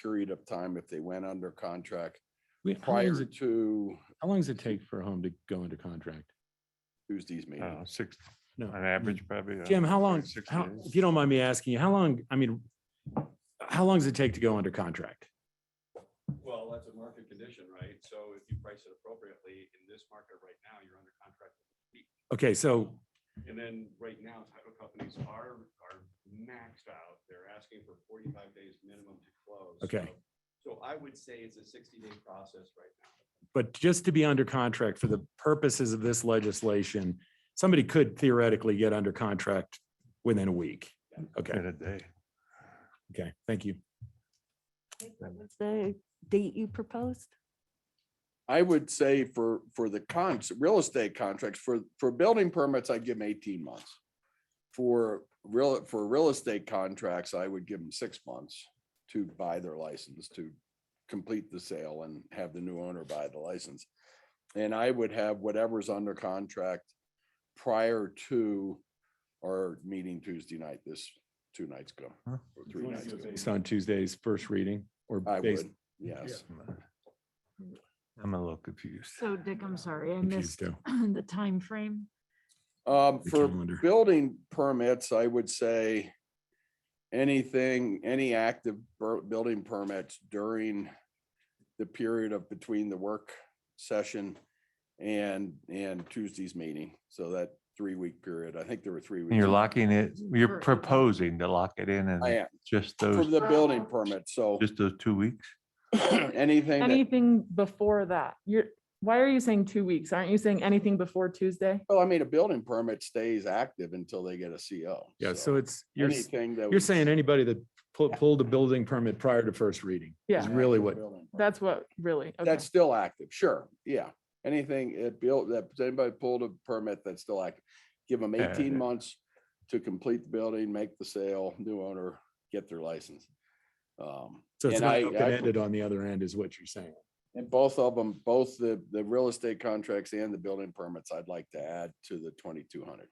period of time if they went under contract We- How long does prior it, to how long does it take for a home to go into contract? Tuesday's meeting. Oh. Uh, Six, No. on average, probably. uh, Jim, how long, six how, days. if you don't mind me asking, you, how long, I mean, how long does it take to go under contract? Well, that's a market condition, right? So if you price it appropriately in this market right now, you're under contract. Okay, so, And then right now, title companies are, are maxed out. They're asking for forty-five days minimum to close. Okay. So so I would say it's a sixty-day process right now. but just to be under contract for the purposes of this legislation, somebody could theoretically get under contract within a week. Okay, In a day. okay, thank you. What was the date you proposed? I would say for, for the cons, real estate contracts, for, for building permits, I'd give them eighteen months. For real, for real estate contracts, I would give them six months to buy their license, to complete the sale and have the new owner buy the license. And I would have whatever's under contract prior to our meeting Tuesday night, this two nights ago. Huh. or three nights ago. Based on Tuesday's first reading or I based, would, yes. I'm a little confused. So Dick, I'm sorry, I confused missed too. the time frame. Um, The for calendar. building permits, I would say anything, any active bur- building permits during the period of between the work session and, and Tuesday's meeting. So that three-week period, I think there were three weeks. You're locking it, you're Sure. proposing to lock it in I and am, just for those, the building permit, so just those two weeks? anything that, Anything before that, you're, why are you saying two weeks? Aren't you saying anything before Tuesday? well, I mean, a building permit stays active until they get a CO. yeah, so it's, you're, s- Anything that. you're was- saying anybody that pu- pulled a building permit prior to first reading? Yeah. Is really what, Building permit. That's what, really? Okay. That's still active, sure, yeah. Anything it built, that anybody pulled a permit that's still active, give them Uh-huh. Yeah, eighteen yeah. months to complete the building, make the sale, new owner, get their license. Um, so it's and not I- I- open-ended on the other end is what you're saying. And both of them, both the, the real estate contracts and the building permits, I'd like to add to the twenty-two hundred.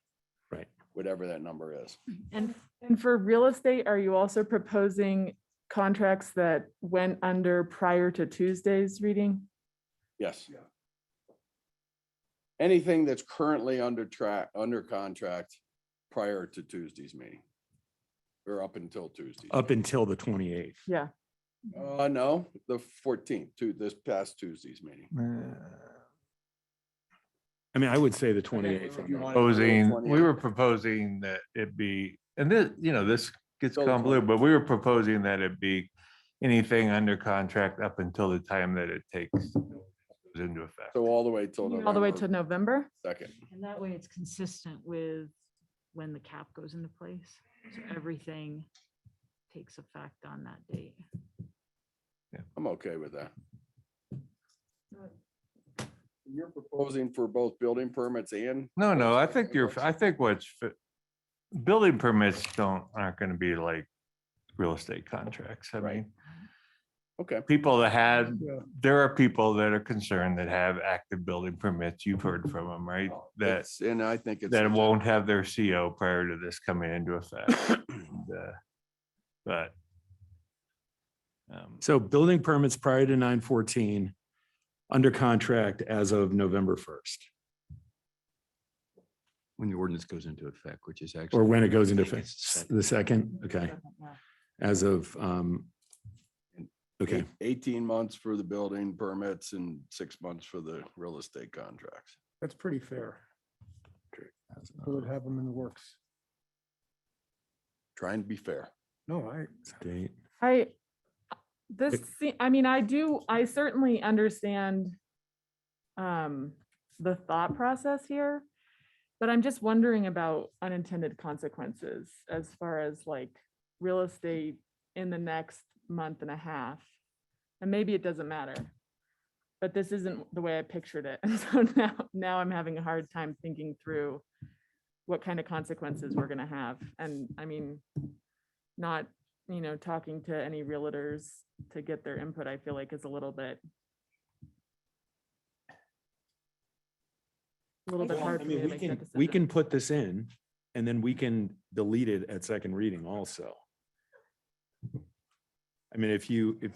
Right. Whatever that number is. And And for real estate, are you also proposing contracts that went under prior to Tuesday's reading? Yes. Anything that's currently under track, under contract prior to Tuesday's meeting. Or up until Tuesday. Up until the twenty-eighth. Yeah. Uh, no, the fourteenth, to this past Tuesday's meeting. Uh, I mean, I would say the twenty-eighth. you want it- Proposing, we 28th. were proposing that it be, and this, you know, this gets Till the convoluted, but we were proposing that it be anything under contract up until the time that it takes goes into effect. So all the way till. All the way to November November? Second. and that way it's consistent with when the cap goes into place. So everything takes effect on that date. I'm okay with that. You're proposing for both building permits and? No, no, I think you're, I think what's, fi- building permits don't, aren't gonna be like real estate contracts. I Right. mean, Okay, people that had, there are people that are concerned that have active building permits. You've heard from them, right? That, that's, and I think Oh, it's. that won't have their CO prior to this coming into effect. And, uh, But. um, So building permits prior to nine fourteen, under contract as of November first, when the ordinance goes into effect, which is actually. or when it goes into I think effect, it's the second. the second, okay, as of, um, okay, Eighteen months for the building permits and six months for the real estate contracts. That's pretty fair. As We would of- have them in the works. Trying to be fair. No, I, date. I, this, se- I mean, I do, I certainly understand um, the thought process here, but I'm just wondering about unintended consequences as far as like real estate in the next month and a half. And maybe it doesn't matter, but this isn't the way I pictured it. And so now, now I'm having a hard time thinking through what kind of consequences we're gonna have. And I mean, not you know, talking to any realtors to get their input, I feel like is a little bit. A little bit Well, hard I for me mean, to we make that can, decision. we can put this in and then we can delete it at second reading also. I mean, if you, if,